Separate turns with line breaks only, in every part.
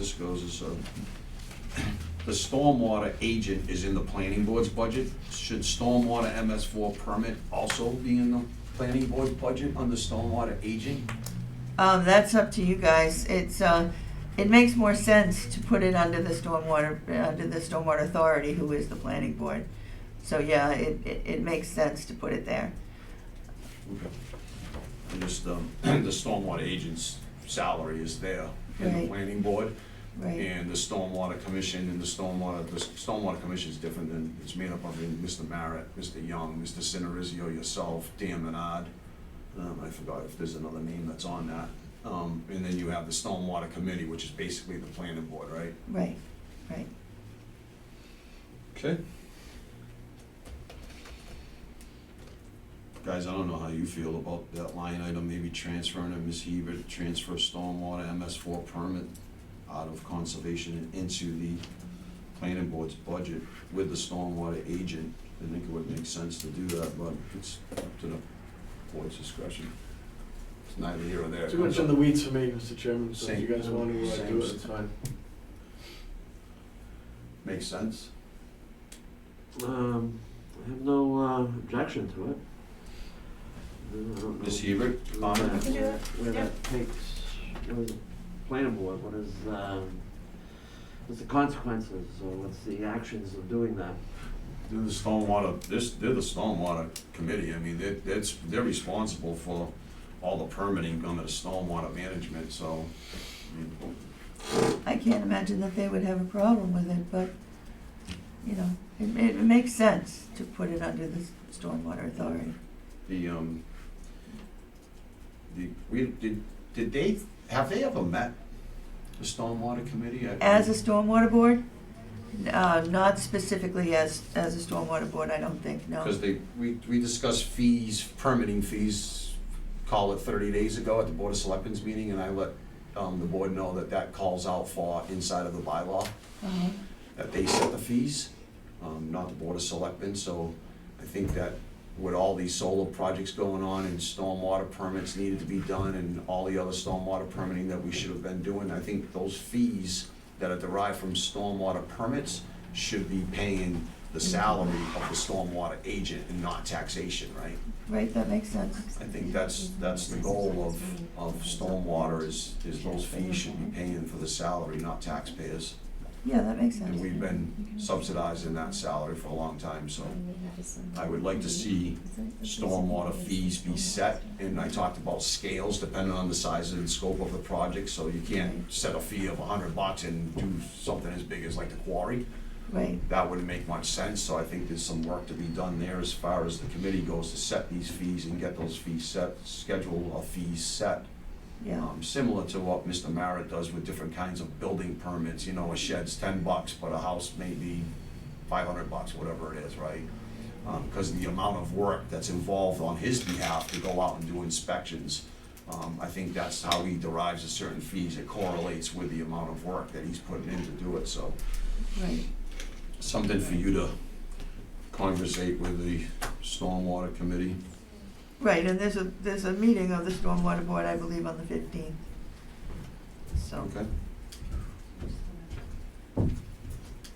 this goes is, uh, the stormwater agent is in the planning board's budget. Should stormwater MS four permit also be in the planning board budget under stormwater agent?
Um, that's up to you guys. It's, uh, it makes more sense to put it under the stormwater, under the stormwater authority, who is the planning board. So, yeah, it, it, it makes sense to put it there.
Okay. And just, um, the stormwater agent's salary is there in the
Right.
planning board.
Right,
And the stormwater commission and the stormwater, the stormwater commission is different than, it's made up of Mr. Marrett, Mr. Young, Mr. Cinerizio, yourself, Dan Menard. Um, I forgot if there's another name that's on that. Um, and then you have the stormwater committee, which is basically the planning board, right?
right, right.
Okay. Guys, I don't know how you feel about that line item, maybe transferring to Ms. Heber, to transfer stormwater MS four permit out of conservation and into the planning board's budget with the stormwater agent. I think it would make sense to do that, but it's up to the board's discretion. It's neither here or there.
Too much in the weeds for me, Mr. Chairman, so if you
Same.
guys want to uh, do it,
Same.
it's fine.
Makes sense?
Um, I have no uh, objection to it. Uh, I don't know.
Ms. Hebert,
Where
comment?
that-
Can do it,
Where
yeah.
that takes, where the planning board, what is, um, what's the consequences, or what's the actions of doing that?
They're the stormwater, this, they're the stormwater committee, I mean, they're, that's, they're responsible for all the permitting under the stormwater management, so. I mean,
I can't imagine that they would have a problem with it, but, you know, it, it makes sense to put it under the stormwater authority.
The, um, the, we, did, did they, have they ever met the stormwater committee? I-
As a stormwater board, uh, not specifically as, as a stormwater board, I don't think, no.
Because they, we, we discussed fees, permitting fees, call it thirty days ago at the Board of Selectmen's meeting, and I let, um, the board know that that calls out for inside of the bylaw.
Uh-huh.
that they set the fees, um, not the Board of Selectmen, so I think that with all these solar projects going on and stormwater permits needed to be done and all the other stormwater permitting that we should have been doing, I think those fees that are derived from stormwater permits should be paying the salary of the stormwater agent and not taxation, right?
Right, that makes sense.
I think that's, that's the goal of, of stormwater is, is those fees should be paying for the salary, not taxpayers.
Yeah, that makes
And
sense.
we've been subsidizing that salary for a long time, so
I would like to see
stormwater fees be set. And I talked about scales depending on the size and scope of the project, so you can't set a fee of a hundred bucks and do something as big as like the quarry.
Right,
That wouldn't make much sense, so I think there's some work to be done there as far as the committee goes to set these fees and get those fees set, schedule of fees set.
yeah,
Um, similar to what Mr. Marrett does with different kinds of building permits, you know, a shed's ten bucks, but a house may be five hundred bucks, whatever it is, right? Um, cause the amount of work that's involved on his behalf to go out and do inspections, um, I think that's how he derives a certain fees, it correlates with the amount of work that he's putting in to do it, so.
right.
Something for you to conversate with the stormwater committee.
Right, and there's a, there's a meeting of the Stormwater Board, I believe, on the fifteenth. So,
Okay.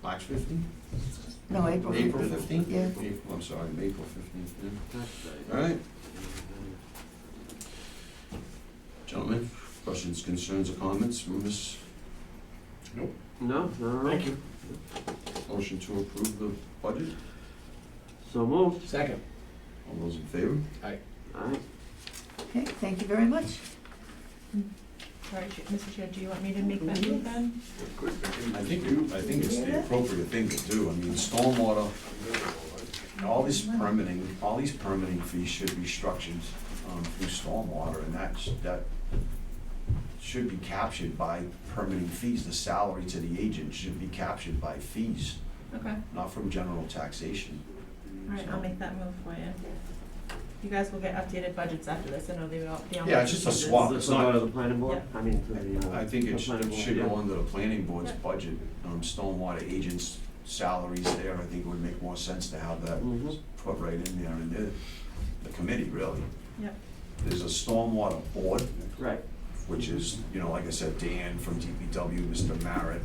March fifteen?
no, April
April
fifteenth.
fifteenth?
Yeah.
April, I'm sorry, April fifteenth, yeah.
That's right.
All right, gentlemen, questions, concerns, or comments from this
No, no, no.
Thank you.
motion to approve the budget?
So moved.
Second.
All those in favor?
All right.
Okay, thank you very much.
Sorry, Ch- Mr. Chair, do you want me to make that move then?
I think you, I think it's the appropriate thing to do, I mean, stormwater, all this permitting, all these permitting fees should be structured, um, through stormwater, and that's, that should be captured by permitting fees, the salary to the agent should be captured by fees,
Okay, all
not from general taxation.
right, I'll make that move for you. You guys will get updated budgets after this, I know they all, they all.
Yeah, it's just a swap.
Does
it's
this go
not-
to the planning board? I mean, to the. uh,
I think
the
it should,
planning
it
board,
should
yeah.
go under the planning board's
Yeah.
budget, um, stormwater agents' salaries there, I think it would make more sense to have that
Mhm.
put right in there, and the, the committee, really.
Yep.
There's a stormwater board,
Right.
which is, you know, like I said, Dan from DPW, Mr. Merritt,